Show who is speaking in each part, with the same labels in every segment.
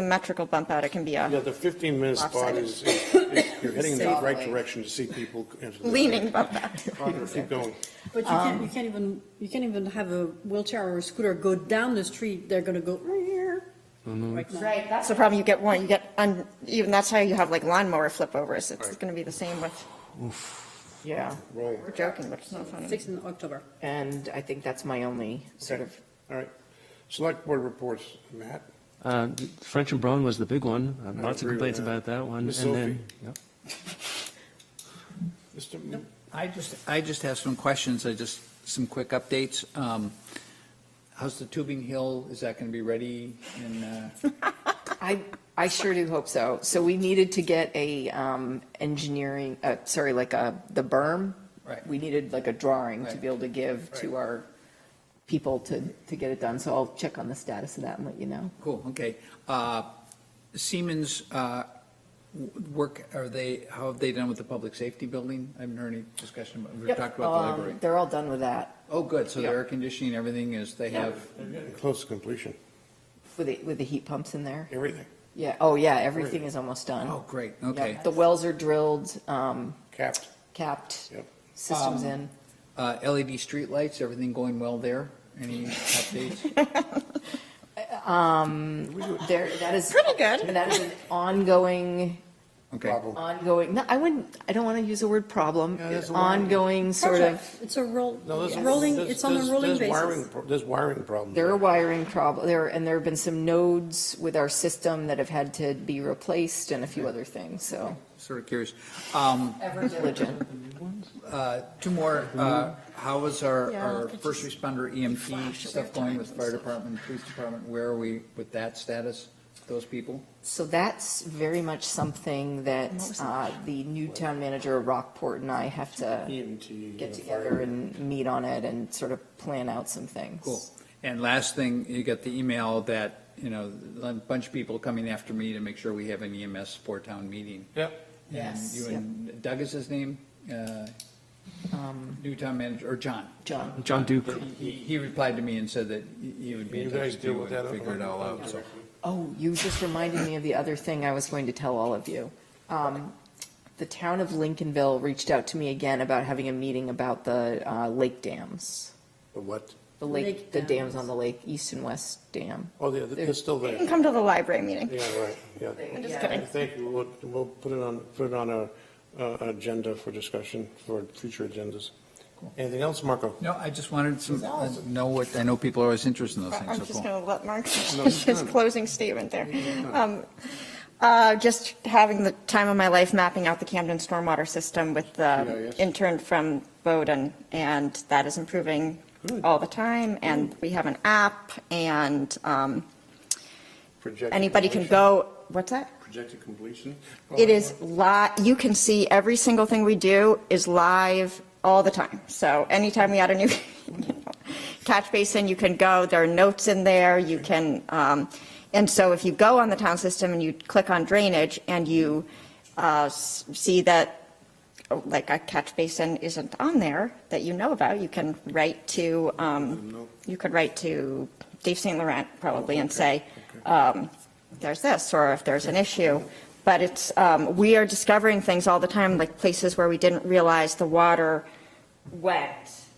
Speaker 1: symmetrical bump out, it can be
Speaker 2: Yeah,
Speaker 1: a
Speaker 2: the 15-minute spot
Speaker 1: Lopsided.
Speaker 2: is, is- is- you're heading in the right
Speaker 1: Exactly.
Speaker 2: direction to see people. enter the-
Speaker 1: leaning bump out.
Speaker 2: Keep going.
Speaker 3: But you can't, you can't even, you can't even have a wheelchair or a scooter go down the street, they're gonna go. Right now.
Speaker 1: Right, that's the problem, you get one, you get, un- even, that's how you have like lawnmower flip overs, it's
Speaker 2: Right.
Speaker 1: gonna be the same with.
Speaker 4: Yeah,
Speaker 2: Roll.
Speaker 1: We're joking, but it's not funny.
Speaker 3: Six in October.
Speaker 4: and I think that's my only sort of,
Speaker 2: All right. Select Board reports, Matt.
Speaker 5: Uh, French and Brown was the big one. Uh, Lots of
Speaker 2: agree with
Speaker 5: complaints
Speaker 2: that.
Speaker 5: about that one.
Speaker 2: Miss
Speaker 5: And then, yeah.
Speaker 2: Mr. M-
Speaker 6: I just, I just have some questions, I just, some quick updates. Um, How's the Tubing Hill, is that going to be ready in, uh,
Speaker 4: I, I sure do hope so. So we needed to get a um, engineering, uh, sorry, like a, the berm.
Speaker 6: Right.
Speaker 4: We needed like a drawing to
Speaker 6: Right.
Speaker 4: be able to give to
Speaker 6: Right.
Speaker 4: our people to, to get it done. So I'll check on the status of that and let you know.
Speaker 6: cool, okay. Uh, Siemens uh, w- work, are they, how have they done with the public safety building? I haven't heard any discussion, about- we've talked about the
Speaker 4: Um,
Speaker 6: library.
Speaker 4: They're all done with that,
Speaker 6: Oh, good, so the
Speaker 4: yeah.
Speaker 6: air conditioning, everything is, they
Speaker 4: Yeah.
Speaker 6: have,
Speaker 2: They're getting Close to completion,
Speaker 4: with the, with the heat pumps in there.
Speaker 2: everything.
Speaker 4: Yeah, oh yeah, everything is almost done.
Speaker 6: oh, great,
Speaker 4: Yeah,
Speaker 6: okay.
Speaker 4: The wells are drilled, um,
Speaker 2: Capped.
Speaker 4: capped,
Speaker 2: Yep.
Speaker 4: systems
Speaker 6: Um,
Speaker 4: in.
Speaker 6: Uh, LED streetlights, everything going well there? Any updates?
Speaker 4: Um, There, that is.
Speaker 1: Pretty good.
Speaker 4: That is an ongoing,
Speaker 6: Okay.
Speaker 2: Problem.
Speaker 4: ongoing, no, I wouldn't, I don't want to use the word problem.
Speaker 2: Yeah, that's a word.
Speaker 4: Ongoing sort of,
Speaker 3: Project. It's a roll,
Speaker 2: No, there's-
Speaker 3: it's rolling,
Speaker 2: there's-
Speaker 3: it's on
Speaker 2: there's-
Speaker 3: a rolling
Speaker 2: there's wiring
Speaker 3: basis.
Speaker 2: pro- There's wiring problems.
Speaker 4: there are
Speaker 2: there.
Speaker 4: wiring problem, there, and there have been some nodes with our system that have had to be replaced and a few other things, so.
Speaker 6: Sort of curious. Um,
Speaker 4: Ever diligent.
Speaker 6: Uh, Two more. Uh, How is our,
Speaker 3: Yeah,
Speaker 6: our
Speaker 3: look at
Speaker 6: first
Speaker 3: you.
Speaker 6: responder EMT stuff going with fire department, police department? Where are we with that status, those people?
Speaker 4: So that's very much something that, uh, the new town manager of Rockport and I have to
Speaker 2: EMT.
Speaker 4: get
Speaker 2: uh,
Speaker 4: together and meet on it and sort of plan out some things.
Speaker 6: Cool. And last thing, you got the email that, you know, a bunch of people coming after me to make sure we have an EMS for town meeting.
Speaker 2: Yep.
Speaker 6: And
Speaker 4: Yes,
Speaker 6: you
Speaker 4: yep.
Speaker 6: and Doug is his name? Uh,
Speaker 4: Um,
Speaker 6: New town manager, or John?
Speaker 4: John,
Speaker 5: John Duke.
Speaker 2: Um,
Speaker 6: He, he replied to me and said that he would be
Speaker 2: You
Speaker 6: in touch
Speaker 2: guys
Speaker 6: with you
Speaker 2: deal with that.
Speaker 6: and figure it all out, so.
Speaker 4: oh, you just reminded me of the other thing I was going to tell all of you. Um, The town of Lincolnville reached out to me again about having a meeting about the uh, lake dams.
Speaker 2: The what?
Speaker 4: The lake,
Speaker 3: Lake
Speaker 4: the dams
Speaker 3: dams.
Speaker 4: on the lake, east and west dam.
Speaker 2: Oh, yeah, they're still
Speaker 1: You can
Speaker 2: there.
Speaker 1: come to the library meeting.
Speaker 2: Yeah, right, yeah.
Speaker 1: I'm just
Speaker 4: Yeah.
Speaker 1: kidding.
Speaker 2: Thank you. We'll, we'll put it on, put it on our, uh, agenda for discussion for future agendas. Anything else, Marco?
Speaker 6: No, I just wanted to uh, know what, I know people are always interested in those things,
Speaker 1: I'm
Speaker 6: so
Speaker 1: just
Speaker 6: cool.
Speaker 1: going to let Mark
Speaker 2: it's
Speaker 1: finish his
Speaker 2: done.
Speaker 1: closing statement there. Um, uh, Just having the time of my life mapping out the Camden stormwater system with the
Speaker 2: GIS.
Speaker 1: intern from Bowden, and that is improving
Speaker 2: Good.
Speaker 1: all the time, and we have an app, and um,
Speaker 2: Projected
Speaker 1: anybody can
Speaker 2: completion?
Speaker 1: go, what's that?
Speaker 2: Projected completion?
Speaker 1: It is li, you can see every single thing we do is live all the time. So anytime we add a new catch basin, you can go, there are notes in there, you can, um, and so if you go on the town system and you click on drainage and you, uh, s- see that, oh, like a catch basin isn't on there that you know about, you can write to, um, you could write to Dave St. Laurent probably and say, um, there's this, or if there's an issue. But it's, um, we are discovering things all the time, like places where we didn't realize the water went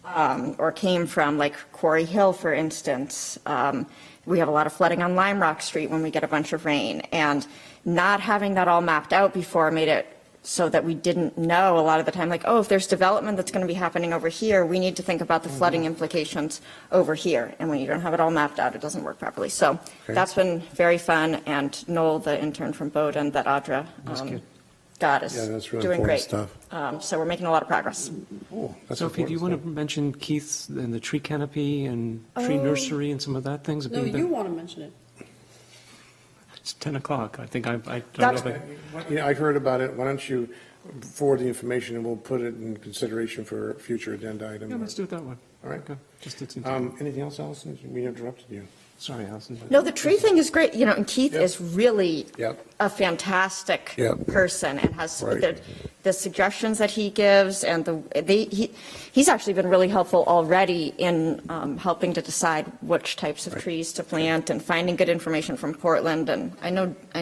Speaker 1: um, or came from, like Quarry Hill, for instance. Um, We have a lot of flooding on Lime Rock Street when we get a bunch of rain. And not having that all mapped out before made it so that we didn't know a lot of the time, like, oh, if there's development that's going to be happening over here, we need to think about the flooding
Speaker 2: Mm-hmm.
Speaker 1: implications over here. And when you don't have it all mapped out, it doesn't work properly. So that's been very fun. And Noel, the intern from Bowdoin that Audra um, got, is
Speaker 2: Yeah, that's really
Speaker 1: doing
Speaker 2: important
Speaker 1: great.
Speaker 2: stuff.
Speaker 1: Um, So we're making a lot of progress.
Speaker 2: Oh, that's
Speaker 5: Sophie, do you
Speaker 2: important
Speaker 5: want to mention Keith's and the tree canopy and tree
Speaker 3: Oh.
Speaker 5: nursery and some of that things?
Speaker 3: No, you wanna mention it.
Speaker 5: It's 10 o'clock. I think I, I don't
Speaker 1: That's-
Speaker 5: know. if I-
Speaker 2: stuff. Yeah, I heard about it. Why don't you forward the information and we'll put it in consideration for a future agenda item?
Speaker 5: Yeah, let's do it that way.
Speaker 2: All right.
Speaker 5: Okay. Just, it's,
Speaker 2: Um, anything else, Allison? We interrupted you.
Speaker 5: sorry, Allison.
Speaker 1: No, the tree thing is great, you know, and Keith
Speaker 2: Yep.
Speaker 1: is really
Speaker 2: Yep.
Speaker 1: a fantastic
Speaker 2: Yep.
Speaker 1: person and has,
Speaker 2: Right.
Speaker 1: the, the the suggestions that he gives and the, they, he, he's actually been really helpful already in um, helping to decide which types of trees to plant and finding good information from Portland. And I know,